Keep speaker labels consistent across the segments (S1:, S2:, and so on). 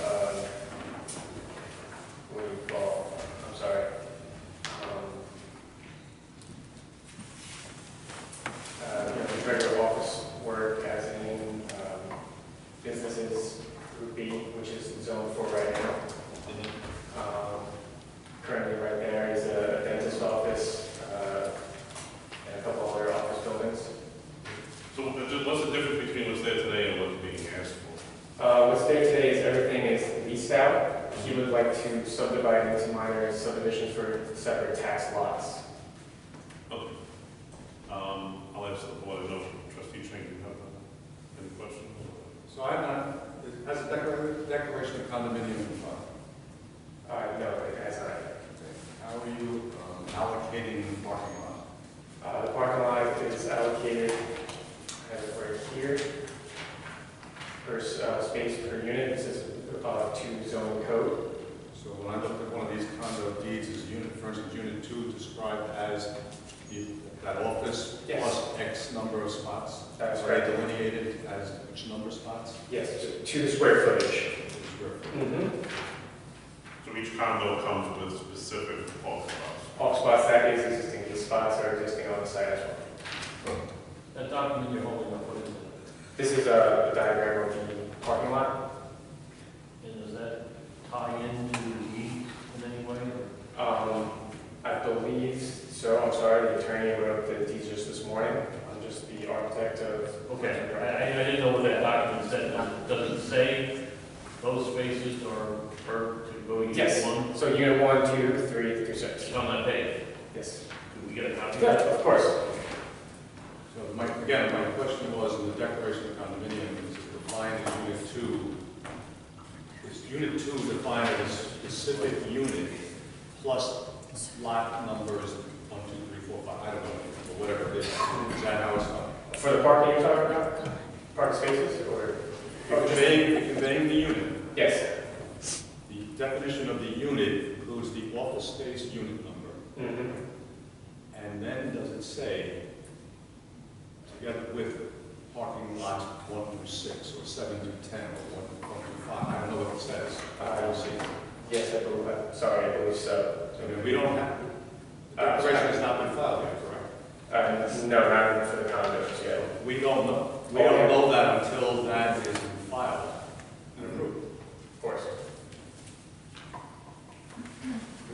S1: Uh, Um, uh, um, zoned for right now. Um, Currently, right there is a dentist office uh, and a couple other office buildings.
S2: So what- what's the difference between what's there today and what's being asked for?
S1: Uh, What's there today is everything is leased out. He would like to subdivide into minor subdivisions for separate tax lots.
S2: Okay. Um, I'll ask the board, I know trustee Chang, you have uh, any questions?
S3: So I have not, it has a declar- declaration of condominium in front.
S1: Uh, No, it has not.
S3: How are you um, allocating the parking lot?
S1: Uh, The parking lot is allocated, I have it right here, per s- uh, space per unit, this is uh, two zone code.
S3: So when I looked at one of these condo deeds, is unit, for instance, unit two described as the- that office
S1: Yes.
S3: plus X number of spots?
S1: That is
S3: Are
S1: right.
S3: they delineated as which number of spots?
S1: Yes, to- to the square footage. Mhm.
S2: So each condo comes with specific parking lots.
S1: All spots that is existing, these spots are existing on the site as well.
S3: Oh,
S4: That document you're holding up, what is it?
S1: This is a diagram of the parking lot.
S4: And does that tie into the deed in any way? or-
S1: Um, I believe, so I'm sorry, the attorney wrote up the deeds just this morning. I'm just the architect of.
S4: Okay, I, I- I didn't know what that document said, Now, does it say those spaces are per to go each
S1: Yes.
S4: one?
S1: So unit one, two, three, through six.
S4: It's on that page,
S1: Yes.
S4: do we get a copy of
S1: Yeah,
S4: that?
S1: of course.
S3: So my, again, my question was, in the declaration of condominium, is it defined as unit two? Is unit two defined as a specific unit plus lot numbers, one, two, three, four, five, I don't know, or whatever it is, is that how it's done?
S1: For the parking you're talking about? Parking spaces or? Oh,
S3: You're Conveying, you're conveying the unit,
S1: Yes.
S3: the definition of the unit includes the office space unit number,
S1: Mhm.
S3: and then does it say, together with parking lot one through six, or seven through ten, or one through one through five, I don't know what it says, I don't see it.
S1: Yes, I believe, that. sorry, I believe so.
S3: So I mean, we don't have, the declaration has not been filed yet, correct?
S1: Uh, no, not for the condos yet.
S3: We don't know, we don't know that until that is filed and approved.
S1: Of course.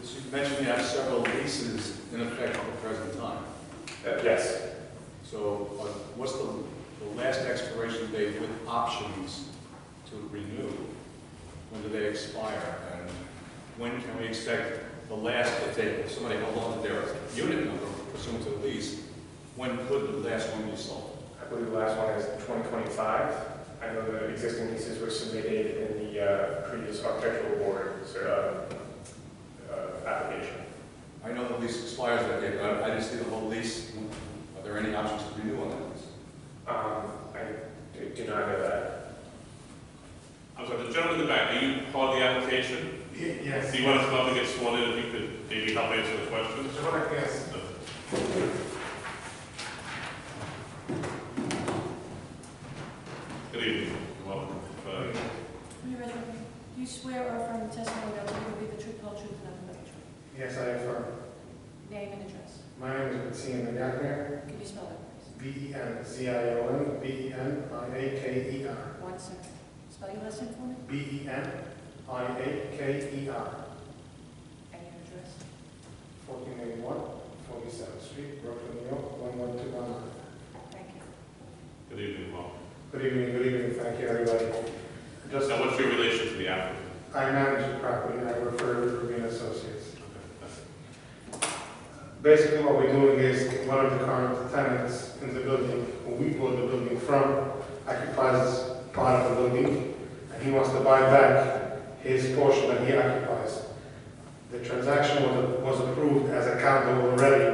S3: As you mentioned, you have several leases in effect at the present time.
S1: Uh, Yes.
S3: So uh, what's the, the last expiration date with options to renew? When do they expire? And when can we expect the last, if they, if somebody held on to their unit number pursuant to the lease, when could the last one be sold?
S1: I believe the last one is 2025. I know the existing leases were submitted in the uh, previous architectural board so, uh, uh, application.
S3: I know the lease expires that day, but I I didn't see the whole lease. Are there any options to renew on that lease?
S1: Um, I do- do not know that.
S2: I'm sorry, the gentleman in the back, are you part of the application?
S5: Yes.
S2: Do you want to come up and get sworn in, if you could maybe help answer the questions?
S5: Yes.
S2: Good evening, welcome. Uh,
S6: Will you raise your hand? Do you swear or affirm the testimony that you will be the truth, the whole truth, and nothing but the truth?
S5: Yes, I affirm.
S6: Name and address.
S5: My name is Benzion Benakner,
S6: Could you spell that, please?
S5: E B-E-N-Z-I-O-N, B-E-N-I-A-K-E-R.
S6: One second. Spell your last name for me
S5: E B-E-N-I-A-K-E-R.
S6: and your address.
S5: 1481, 47th Street, Brooklyn, New York, 11219.
S6: Thank you.
S2: Good evening, welcome.
S5: Good evening, good evening, thank you, everybody. Just,
S2: Now, what's your relation to the applicant?
S5: I manage the property, and I refer to Rubin Associates.
S2: Okay, that's it.
S5: Basically, what we're doing is, one of the current tenants in the building, who we bought the building from, occupies part of the building, and he wants to buy back his portion that he occupies. The transaction was, was approved as a condo already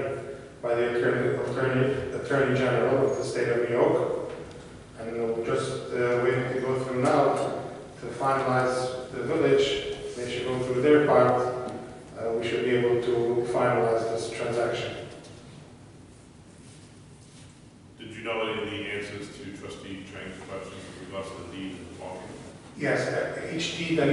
S5: by the attorney, attorney, attorney general of the state of New York. And we're just uh, waiting to go through now to finalize the village, they should go through their part, uh, we should be able to finalize this transaction.
S2: Did you know any of the answers to trustee Chang's questions with regards to the deed and the parking?
S5: Yes, uh, each deed that